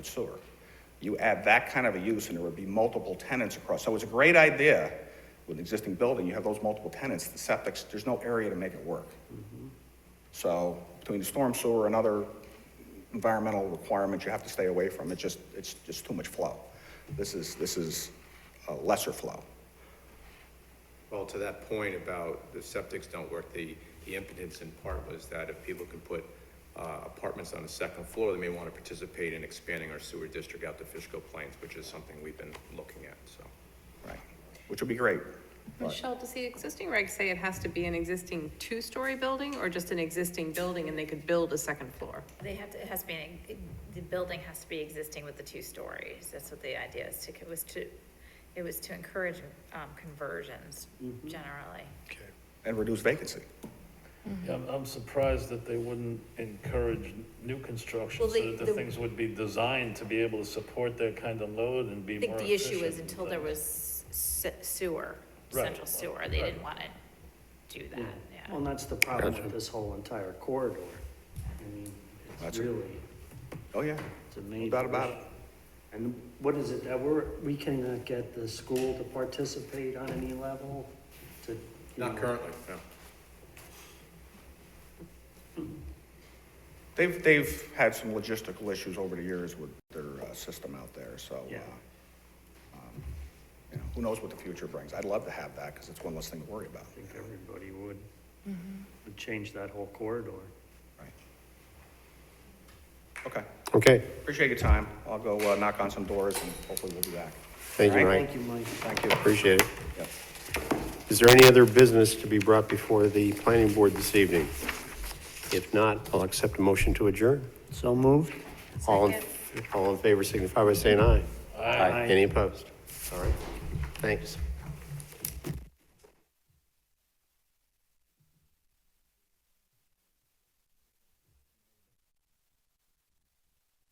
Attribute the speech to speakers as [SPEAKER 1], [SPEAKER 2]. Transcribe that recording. [SPEAKER 1] sewer. You add that kind of a use, and there would be multiple tenants across. So it's a great idea with an existing building, you have those multiple tenants, the septics, there's no area to make it work. So between the storm sewer and other environmental requirements you have to stay away from, it just, it's just too much flow. This is, this is a lesser flow.
[SPEAKER 2] Well, to that point about the septics don't work, the, the impotence in part was that if people can put uh, apartments on the second floor, they may want to participate in expanding our sewer district out to Fishkill Plains, which is something we've been looking at, so.
[SPEAKER 1] Right, which would be great.
[SPEAKER 3] Michelle, does the existing reg say it has to be an existing two-story building or just an existing building and they could build a second floor?
[SPEAKER 4] They have to, it has to be, an- the building has to be existing with the two stories, that's what the idea is, to, it was to, it was to encourage, um, conversions generally.
[SPEAKER 5] Okay.
[SPEAKER 1] And reduce vacancy.
[SPEAKER 4] Mm-hmm.
[SPEAKER 5] Yeah, I'm- I'm surprised that they wouldn't encourage new construction,
[SPEAKER 6] Well,
[SPEAKER 5] so
[SPEAKER 6] the-
[SPEAKER 5] that the
[SPEAKER 6] the-
[SPEAKER 5] things would be designed to be able to support that kind of load and be
[SPEAKER 4] I think
[SPEAKER 5] more
[SPEAKER 4] the issue
[SPEAKER 5] is
[SPEAKER 4] was until there was se- sewer,
[SPEAKER 5] Right.
[SPEAKER 4] central sewer, they didn't
[SPEAKER 5] Right.
[SPEAKER 4] wanna do that,
[SPEAKER 6] Well,
[SPEAKER 4] yeah.
[SPEAKER 6] and that's the problem with this whole entire corridor. I mean,
[SPEAKER 1] That's
[SPEAKER 6] it's
[SPEAKER 1] it.
[SPEAKER 6] really,
[SPEAKER 1] Oh, yeah.
[SPEAKER 6] it's a main.
[SPEAKER 1] No doubt about
[SPEAKER 6] issue. And what is it that we're, we cannot get the school to participate on any level to? you
[SPEAKER 2] Not
[SPEAKER 6] know,
[SPEAKER 2] currently, no.
[SPEAKER 1] They've, they've had some logistical issues over the years with their uh, system out there, so, uh,
[SPEAKER 6] Yeah.
[SPEAKER 1] um, you know, who knows what the future brings? I'd love to have that, because it's one less thing to worry about.
[SPEAKER 6] I think everybody would, would change that whole corridor.
[SPEAKER 1] Right. Okay,
[SPEAKER 7] Okay,
[SPEAKER 1] appreciate your time. I'll go uh, knock on some doors, and hopefully we'll be back.
[SPEAKER 7] thank you,
[SPEAKER 1] All
[SPEAKER 7] Mike.
[SPEAKER 6] Thank you, Mike.
[SPEAKER 1] Thank you.
[SPEAKER 7] Appreciate it.
[SPEAKER 1] Yep.
[SPEAKER 7] Is there any other business to be brought before the planning board this evening? If not, I'll accept a motion to adjourn.
[SPEAKER 6] So moved?
[SPEAKER 7] All in, all in favor signify by saying aye.
[SPEAKER 5] Aye.
[SPEAKER 7] Any opposed? All right, thanks.